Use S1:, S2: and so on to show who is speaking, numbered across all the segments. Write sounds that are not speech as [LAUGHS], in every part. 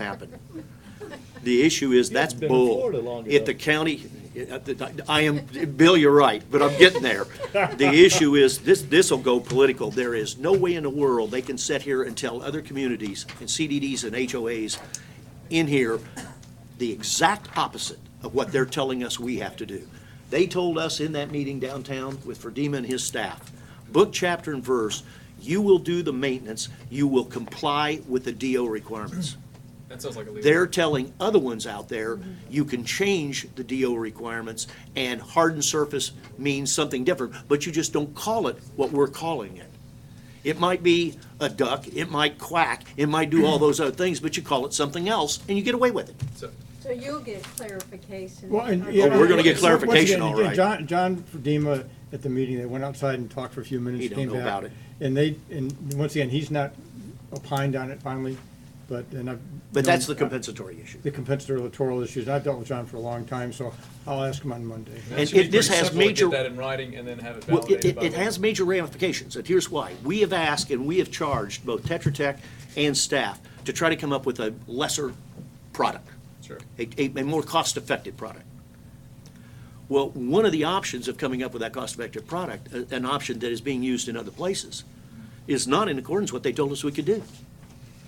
S1: happen. The issue is, that's
S2: You've been in
S1: bull.
S2: Florida long
S1: If the county, I am, Bill, you're right, but I'm getting there. The issue is, this, this'll go political. There is no way in the world they can sit here and tell other communities and CDDs and HOAs in here the exact opposite of what they're telling us we have to do. They told us in that meeting downtown with Ferdima and his staff, book, chapter, and verse, you will do the maintenance, you will comply with the DO requirements.
S3: That sounds like a legal.
S1: They're telling other ones out there, you can change the DO requirements, and hardened surface means something different, but you just don't call it what we're calling it. It might be a duck, it might quack, it might do all those other things, but you call it something else, and you get away with it.
S3: So,
S4: So you'll get clarification.
S5: Well, and,
S4: on
S5: yeah,
S1: Oh, we're gonna get
S5: so, once
S1: clarification,
S5: again,
S1: all
S5: again,
S1: right.
S5: John, John Fedema at the meeting, they went outside and talked for a few minutes.
S1: He don't
S5: came
S1: know
S5: back,
S1: about it.
S5: And they, and once again, he's not opined on it finally, but, and I've.
S1: But
S5: known- uh,
S1: that's the compensatory issue.
S5: The compensatory electoral issues. and I've dealt with John for a long time, so I'll ask him on Monday.
S1: And
S3: should be
S1: it- this
S3: pretty
S1: has
S3: simple to
S1: major-
S3: Get that in writing and then have it
S1: Well, it,
S3: validated
S1: it
S3: by.
S1: it has major ramifications, and here's why. We have asked and we have charged both Tetra Tech and staff to try to come up with a lesser product,
S3: Sure.
S1: a, a- a more cost-effective product. Well, one of the options of coming up with that cost-effective product, a- an option that is being used in other places, is not in accordance with what they told us we could do.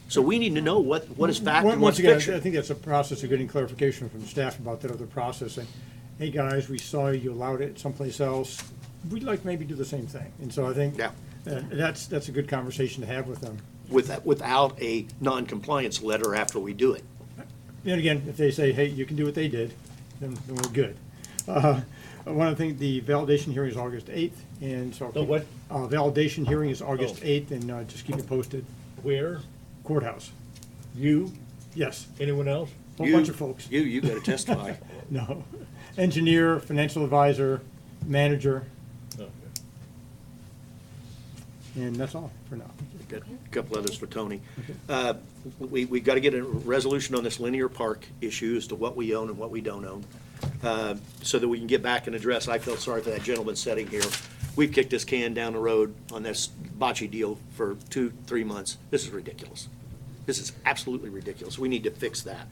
S1: So we need to know what, what is fact
S5: Once
S1: and what's
S5: once again, I
S1: fiction.
S5: th- I think that's a process of getting clarification from staff about that other process. And, Hey, guys, we saw you allowed it someplace else. We'd like maybe do the same thing. And so I think
S1: Yeah.
S5: uh, that's, that's a good conversation to have with them.
S1: Without, without a non-compliance letter after we do it.
S5: Then again, if they say, hey, you can do what they did, then then we're good. Uh, One of the things, the validation hearing is August 8th, and so.
S2: The what?
S5: Uh, Validation hearing is August
S2: Oh.
S5: 8th, and uh, just keep it posted.
S2: Where?
S5: Courthouse,
S2: You?
S5: yes,
S2: Anyone else?
S5: whole bunch of folks.
S1: You, you gotta
S3: [LAUGHS]
S1: testify.
S5: No. Engineer, financial advisor, manager,
S2: Okay.
S5: and that's all for now.
S1: Got a couple others for Tony. Uh, We, we got to get a resolution on this linear park issue as to what we own and what we don't own, uh, so that we can get back and address, I felt sorry for that gentleman sitting here. We've kicked this can down the road on this bocce deal for two, three months. This is ridiculous. This is absolutely ridiculous. We need to fix that.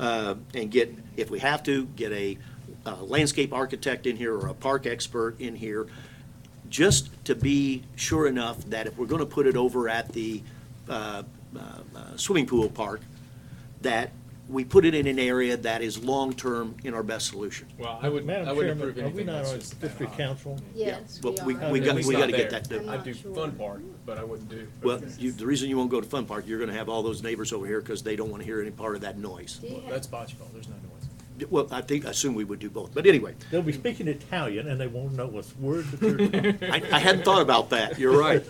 S1: Uh, And get, if we have to, get a uh, landscape architect in here or a park expert in here just to be sure enough that if we're going to put it over at the uh, uh, uh, swimming pool park, that we put it in an area that is long-term in our best solution.
S3: Well, I would, I
S2: Madam
S3: wouldn't approve
S2: Chairman, are we
S3: anything
S2: not
S3: that's
S2: on
S3: just that
S2: district
S3: high.
S2: council?
S4: Yes,
S1: Well, we,
S4: we
S1: we
S4: are.
S3: At
S1: got,
S3: least
S1: we
S3: not
S1: got to get
S3: there.
S1: that done.
S4: I'm
S3: I'd do
S4: not
S3: fun
S4: sure.
S3: park, but I wouldn't do.
S1: Well, you, the reason you won't go to Fun Park, you're going to have all those neighbors over here because they don't want to hear any part of that noise.
S4: Do you have-
S3: That's bocce ball, there's no noise.
S1: Well, I think, I assume we would do both, but anyway,
S2: They'll be speaking Italian and they won't know what's word that
S1: [LAUGHS]
S2: they're talking.
S1: I, I hadn't thought about that, you're
S3: [LAUGHS]
S1: right.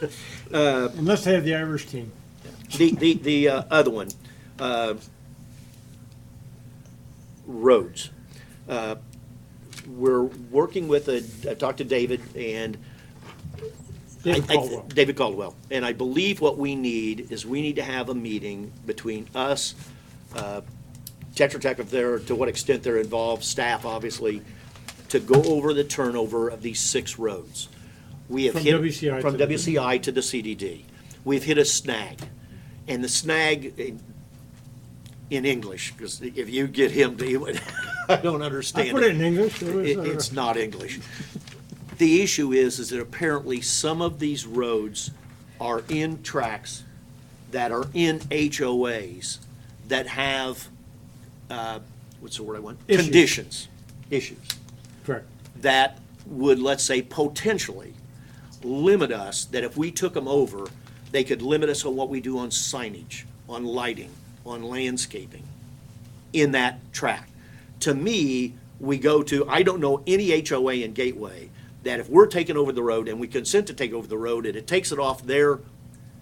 S1: Uh,
S5: Unless they have the Irish team.
S1: The, the, the uh, other one, uh, roads. Uh, We're working with a, I talked to David and. I-
S5: David
S1: I-
S5: Caldwell.
S1: David Caldwell. And I believe what we need is we need to have a meeting between us, uh, Tetra Tech if they're, to what extent they're involved, staff obviously, to go over the turnover of these six roads. We have
S5: From
S1: hit.
S5: WCI to
S1: From
S5: the-
S1: WCI to the CDD. We've hit a snag. And the snag, eh, in English, because if you get him to, he would- [LAUGHS] I don't understand
S5: I put it in English. There was,
S1: it-
S5: uh,
S1: It's not English. The issue is, is that apparently some of these roads are in tracks that are in HOAs that have, uh, what's the word I want?
S5: Issues.
S1: Conditions, issues,
S5: Correct.
S1: that would, let's say, potentially limit us, that if we took them over, they could limit us on what we do on signage, on lighting, on landscaping in that track. To me, we go to, I don't know any HOA in Gateway that if we're taking over the road and we consent to take over the road and it takes it off their,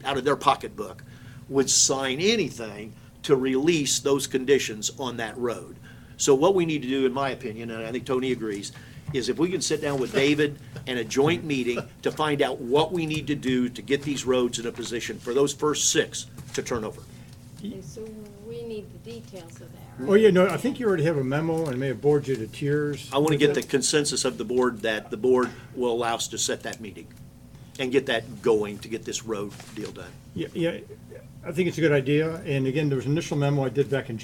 S1: out of their pocketbook, would sign anything to release those conditions on that road. So what we need to do, in my opinion, and I think Tony agrees, is if we can sit down with David and a joint meeting to find out what we need to do to get these roads in a position for those first six to turn over.
S4: Okay, So we need the details of that.
S5: Oh, yeah, no, I think you already have a memo and may have bored you to tears.
S1: I want to get the consensus of the board that the board will allow us to set that meeting and get that going to get this road deal done.
S5: Yeah, yeah, I think it's a good idea. And again, there was an initial memo I did back in